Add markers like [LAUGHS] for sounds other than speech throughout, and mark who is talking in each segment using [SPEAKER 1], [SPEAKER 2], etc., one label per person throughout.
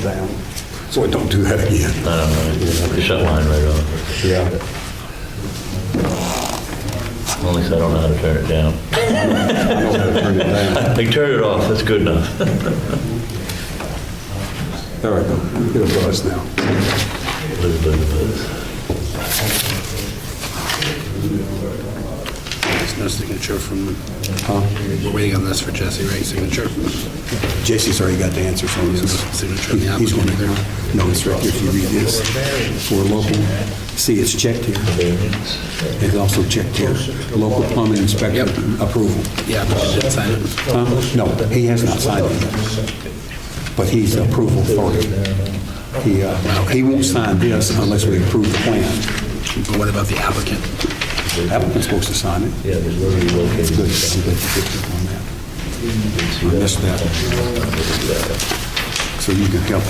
[SPEAKER 1] down, so it don't do that again.
[SPEAKER 2] I don't know, shut mine right off.
[SPEAKER 1] Yeah.
[SPEAKER 2] Only so I don't know how to turn
[SPEAKER 1] [LAUGHS]
[SPEAKER 2] it down.
[SPEAKER 1] I don't know how to turn it down.
[SPEAKER 2] I can turn it off, that's good enough.
[SPEAKER 1] There we go. Get a buzz now.
[SPEAKER 2] Buzz, buzz, buzz.
[SPEAKER 3] There's no signature from, we're waiting on this for Jesse, right? Signature?
[SPEAKER 1] Jesse's already got the answer for
[SPEAKER 3] No
[SPEAKER 1] this.
[SPEAKER 3] Signature on the
[SPEAKER 1] He's going
[SPEAKER 3] applicant
[SPEAKER 1] to,
[SPEAKER 3] either.
[SPEAKER 1] no, it's right here if you read this. For local, see, it's checked here.
[SPEAKER 2] Variance.
[SPEAKER 1] It's also checked here. Local plumbing inspector approval.
[SPEAKER 3] Yeah, but you did sign it.
[SPEAKER 1] Huh? No, he has not signed it. But he's the approval authority. He, uh, he won't sign this unless we approve the plan.
[SPEAKER 3] But what about the applicant?
[SPEAKER 1] Applicant's supposed to sign it.
[SPEAKER 2] Yeah, there's literally located.
[SPEAKER 1] Good, I'm glad you picked up on that. I missed that. So you can help,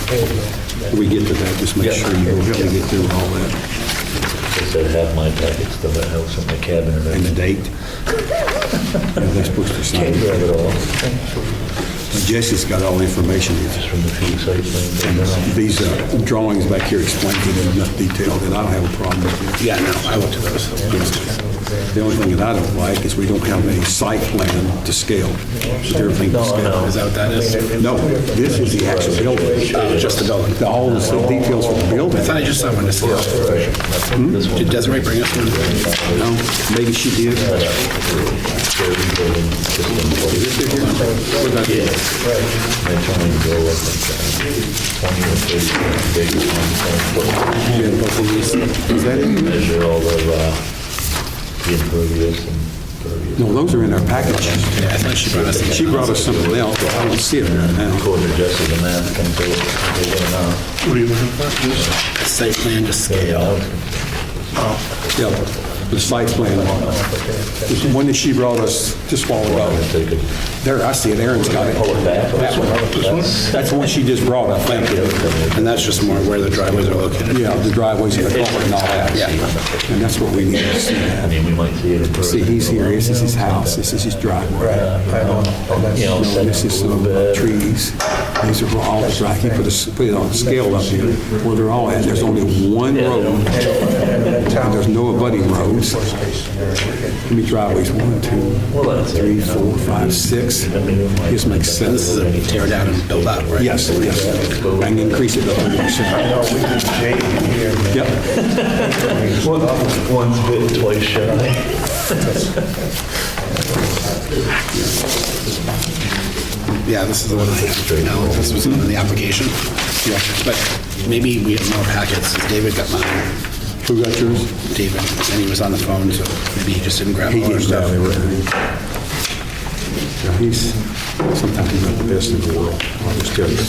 [SPEAKER 1] when we get to that, just make
[SPEAKER 2] Yeah.
[SPEAKER 1] sure you really get through all that,
[SPEAKER 2] They said half my packets, the house and my cabin and
[SPEAKER 1] and the
[SPEAKER 2] everything.
[SPEAKER 1] date. You know, They're supposed to sign
[SPEAKER 2] Can't
[SPEAKER 1] it.
[SPEAKER 2] grab it all,
[SPEAKER 1] Jesse's got all the information here.
[SPEAKER 2] just from the few site plans.
[SPEAKER 1] These uh, drawings back here explain it in enough detail that I don't have a problem with it.
[SPEAKER 3] Yeah, no, I looked at those.
[SPEAKER 1] The only thing that I don't like is we don't have a site plan to scale, with everything to
[SPEAKER 2] No,
[SPEAKER 1] scale.
[SPEAKER 2] no.
[SPEAKER 3] Is that what that is?
[SPEAKER 1] No, this is the actual building.
[SPEAKER 3] Oh, just the building.
[SPEAKER 1] The- All the details for the building. Hmm?
[SPEAKER 3] I thought I just saw one to see.
[SPEAKER 2] This one,
[SPEAKER 3] Did Desiree bring us one?
[SPEAKER 1] No, maybe she did.
[SPEAKER 2] that's only go up like uh, 20 or 30 big, one, 20 foot.
[SPEAKER 1] Is that it?
[SPEAKER 2] measure all of uh, the impervious and pervious.
[SPEAKER 1] No, those are in our package.
[SPEAKER 3] Yeah, I thought she brought us.
[SPEAKER 1] She brought us something else, but I don't see it right now.
[SPEAKER 2] According to Jesse, the math comes out, they don't know.
[SPEAKER 3] What are you looking for? Site plan to scale.
[SPEAKER 1] Yeah, the site plan. It's the one that she brought us just while ago.
[SPEAKER 2] If they could
[SPEAKER 1] There, I see it, Aaron's got
[SPEAKER 2] pull
[SPEAKER 1] it.
[SPEAKER 2] it back.
[SPEAKER 1] That one.
[SPEAKER 2] That's-
[SPEAKER 1] That's the one she just brought, I think.
[SPEAKER 3] And that's just more where the driveways are located.
[SPEAKER 1] Yeah, the driveways and the culvert and all that.
[SPEAKER 3] Yeah.
[SPEAKER 1] And that's what we need to see.
[SPEAKER 2] I mean, we might see it in person.
[SPEAKER 1] See, he's here, this is his house, this is his driveway.
[SPEAKER 2] You know,
[SPEAKER 1] Oh, No,
[SPEAKER 2] set
[SPEAKER 1] this is
[SPEAKER 2] a
[SPEAKER 1] some uh,
[SPEAKER 2] little bit.
[SPEAKER 1] trees. These are all, right, he put a, put it on a scale up here, where they're all at. There's only one road, and there's no abutting roads. Let me driveways, one, two, three, four, five, six. This makes
[SPEAKER 3] This is
[SPEAKER 1] sense.
[SPEAKER 3] a tear down and build up, right?
[SPEAKER 1] Yes, yes. And increase it to 100%. Yep,
[SPEAKER 2] One- One's bit, twice shy.
[SPEAKER 3] Yeah, this is the one I have right now. This was in the application. Yeah. But maybe we have more packets. David got mine.
[SPEAKER 1] who got yours?
[SPEAKER 3] David, and he was on the phone, so maybe he just didn't grab
[SPEAKER 1] He
[SPEAKER 3] all our
[SPEAKER 1] didn't grab
[SPEAKER 3] stuff.
[SPEAKER 1] everything. Yeah, He's, sometimes he's not the best in the world. I'll just tell you that.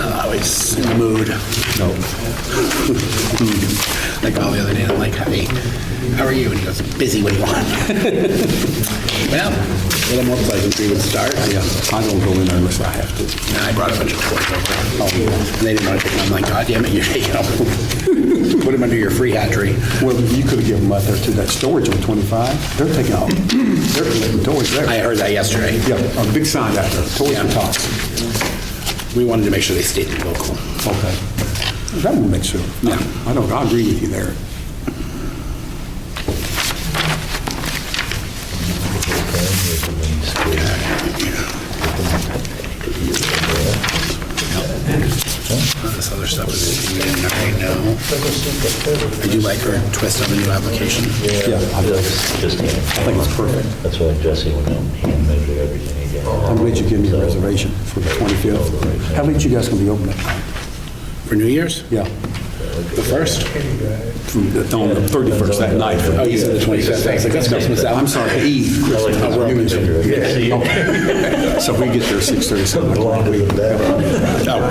[SPEAKER 3] No, he's in the mood.
[SPEAKER 1] No.
[SPEAKER 3] [LAUGHS] Like all the other day, I'm like, hey, how are you? And he goes, busy, what do you want? [LAUGHS] Well, a little more pleasantry would start.
[SPEAKER 1] Yeah, I don't go in there unless I have to.
[SPEAKER 3] And I brought a bunch of toys over. And they didn't want to take them. I'm like, God damn it, you're taking them. [LAUGHS] Put them under your free hat tree.
[SPEAKER 1] Well, you could have given them out there to that storage on 25. They're taking out, they're collecting toys
[SPEAKER 3] I
[SPEAKER 1] there.
[SPEAKER 3] heard that yesterday.
[SPEAKER 1] Yeah, a big sign out there, Toys for
[SPEAKER 3] Yeah.
[SPEAKER 1] Tots.
[SPEAKER 3] We wanted to make sure they stayed local.
[SPEAKER 1] Okay. That will make sure. Yeah, I don't, I agree with you there.
[SPEAKER 3] This other stuff is, we didn't already know. I do like her twist of a new application.
[SPEAKER 1] Yeah, I
[SPEAKER 2] That's just,
[SPEAKER 1] I think it's perfect.
[SPEAKER 2] that's why Jesse went out and hand measured everything again.
[SPEAKER 1] I'm glad you gave me a reservation for the 25th. How late you guys gonna be open?
[SPEAKER 3] For New Year's?
[SPEAKER 1] Yeah,
[SPEAKER 3] The first?
[SPEAKER 1] from the- on the 31st that night.
[SPEAKER 3] Oh, you said the 25th. I was like, that's Christmas.
[SPEAKER 1] I'm sorry, Eve.
[SPEAKER 2] I like
[SPEAKER 1] Christmas.
[SPEAKER 2] this
[SPEAKER 1] Oh, you
[SPEAKER 2] one
[SPEAKER 1] mentioned-
[SPEAKER 2] picture. I can see
[SPEAKER 1] [LAUGHS]
[SPEAKER 2] it.
[SPEAKER 1] So we get there 6:30, 7 o'clock. we-
[SPEAKER 3] Oh,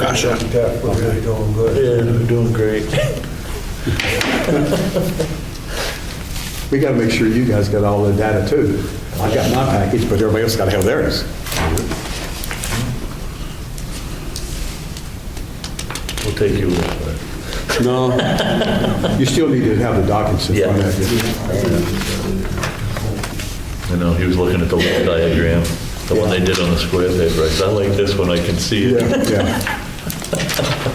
[SPEAKER 3] gosh. yeah.
[SPEAKER 4] We're really doing good.
[SPEAKER 2] Yeah, we're doing great.
[SPEAKER 1] We gotta make sure you guys got all the data too. I got my package, but everybody else gotta have theirs.
[SPEAKER 2] We'll take you. uh,
[SPEAKER 1] No, you still need to have the documents in front of you.
[SPEAKER 2] I know, he was looking at the little diagram, the one they did on the square paper. I said, I like this one, I can see it.
[SPEAKER 1] Yeah, yeah.